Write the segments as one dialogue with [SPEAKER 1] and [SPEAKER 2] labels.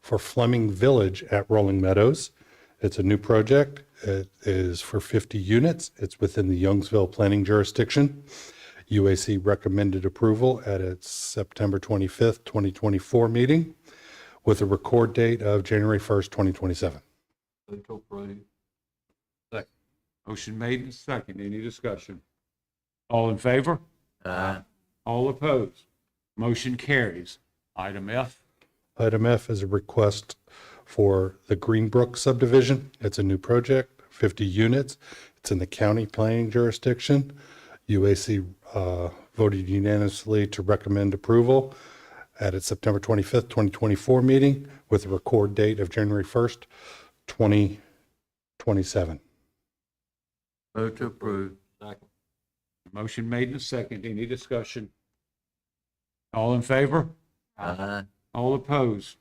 [SPEAKER 1] for Fleming Village at Rolling Meadows. It's a new project. It is for 50 units. It's within the Youngsville planning jurisdiction. UAC recommended approval at its September 25th, 2024 meeting with a record date of January 1st, 2027.
[SPEAKER 2] Move to approve. Second. Motion made and second. Any discussion? All in favor?
[SPEAKER 3] Aye.
[SPEAKER 2] All opposed? Motion carries. Item F.
[SPEAKER 1] Item F is a request for the Greenbrook subdivision. It's a new project, 50 units. It's in the county planning jurisdiction. UAC uh, voted unanimously to recommend approval at its September 25th, 2024 meeting with a record date of January 1st, 2027.
[SPEAKER 3] Vote to approve. Second.
[SPEAKER 2] Motion made and second. Any discussion? All in favor?
[SPEAKER 3] Aye.
[SPEAKER 2] All opposed?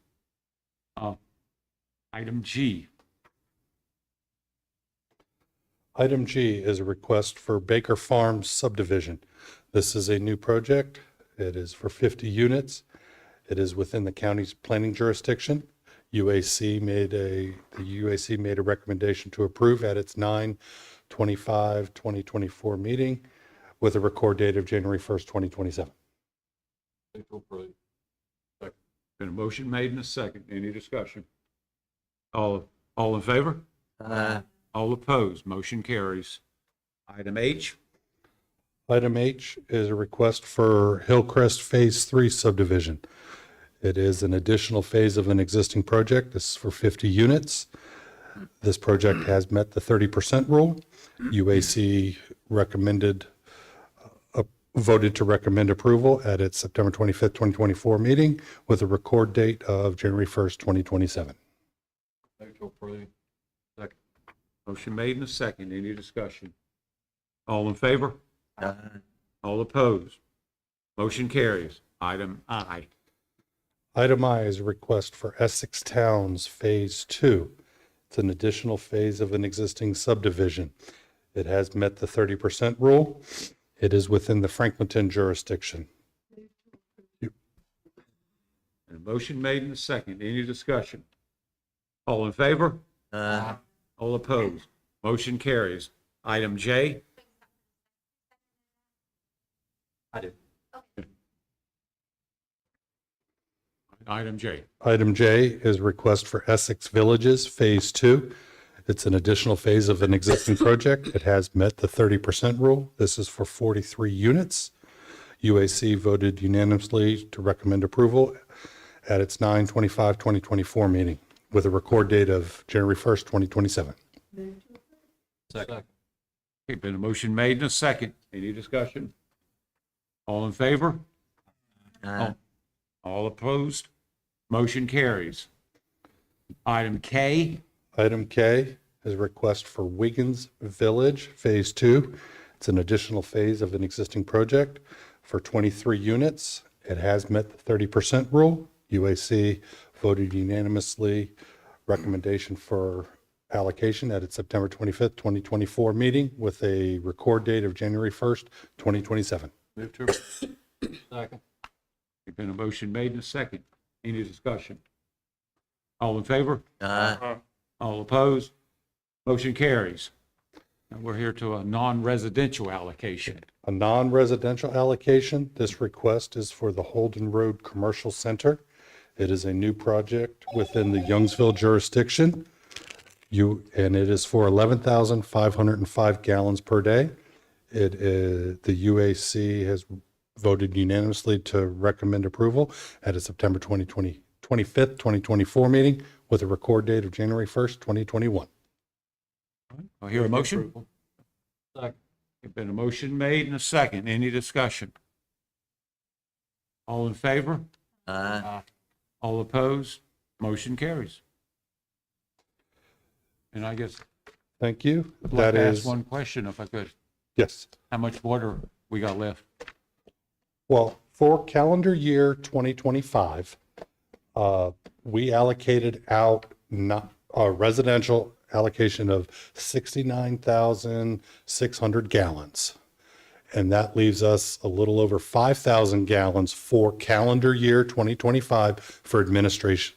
[SPEAKER 2] Uh, Item G.
[SPEAKER 1] Item G is a request for Baker Farms subdivision. This is a new project. It is for 50 units. It is within the county's planning jurisdiction. UAC made a, the UAC made a recommendation to approve at its 9/25/2024 meeting with a record date of January 1st, 2027.
[SPEAKER 2] Move to approve. Second. Been a motion made and a second. Any discussion? All, all in favor?
[SPEAKER 3] Aye.
[SPEAKER 2] All opposed? Motion carries. Item H.
[SPEAKER 1] Item H is a request for Hillcrest Phase 3 subdivision. It is an additional phase of an existing project. This is for 50 units. This project has met the 30% rule. UAC recommended, uh, voted to recommend approval at its September 25th, 2024 meeting with a record date of January 1st, 2027.
[SPEAKER 2] Move to approve. Second. Motion made and a second. Any discussion? All in favor?
[SPEAKER 3] Aye.
[SPEAKER 2] All opposed? Motion carries. Item I.
[SPEAKER 1] Item I is a request for Essex Towns Phase Two. It's an additional phase of an existing subdivision. It has met the thirty percent rule. It is within the Franklinton jurisdiction.
[SPEAKER 2] And a motion made and a second. Any discussion? All in favor?
[SPEAKER 3] Aye.
[SPEAKER 2] All opposed? Motion carries. Item J. I did. Item J.
[SPEAKER 1] Item J is request for Essex Villages Phase Two. It's an additional phase of an existing project. It has met the thirty percent rule. This is for forty-three units. UAC voted unanimously to recommend approval at its 9 2024 meeting with a record date of January first, twenty twenty-seven.
[SPEAKER 2] Second. Okay, been a motion made and a second. Any discussion? All in favor?
[SPEAKER 3] Aye.
[SPEAKER 2] All opposed? Motion carries. Item K,
[SPEAKER 1] Item K is a request for Wiggins Village Phase Two. It's an additional phase of an existing project for 23 units. It has met the 30% rule. UAC voted unanimously recommendation for allocation at its September 25th, 2024 meeting with a record date of January 1st, 2027.
[SPEAKER 2] there's been a motion made and a second. Any discussion? All in favor?
[SPEAKER 3] Aye.
[SPEAKER 2] All opposed? Motion carries. Now we're here to a non-residential allocation.
[SPEAKER 1] A non-residential allocation, this request is for the Holden Road Commercial Center. It is a new project within the Youngsville jurisdiction. You, and it is for 11,505 gallons per day. It is, the UAC has voted unanimously to recommend approval at a September 2020, 25th, 2024 meeting with a record date of January 1st, 2021.
[SPEAKER 2] I hear a motion. There's been a motion made and a second. Any discussion? All in favor?
[SPEAKER 3] Aye.
[SPEAKER 2] All opposed? Motion carries. And I guess
[SPEAKER 1] Thank you.
[SPEAKER 2] I'd like
[SPEAKER 1] That
[SPEAKER 2] to ask
[SPEAKER 1] is,
[SPEAKER 2] one question if I could.
[SPEAKER 1] yes.
[SPEAKER 2] How much water we got left?
[SPEAKER 1] Well, for calendar year 2025, uh, we allocated out not, a residential allocation of 69,600 gallons. And that leaves us a little over 5,000 gallons for calendar year 2025 for administration,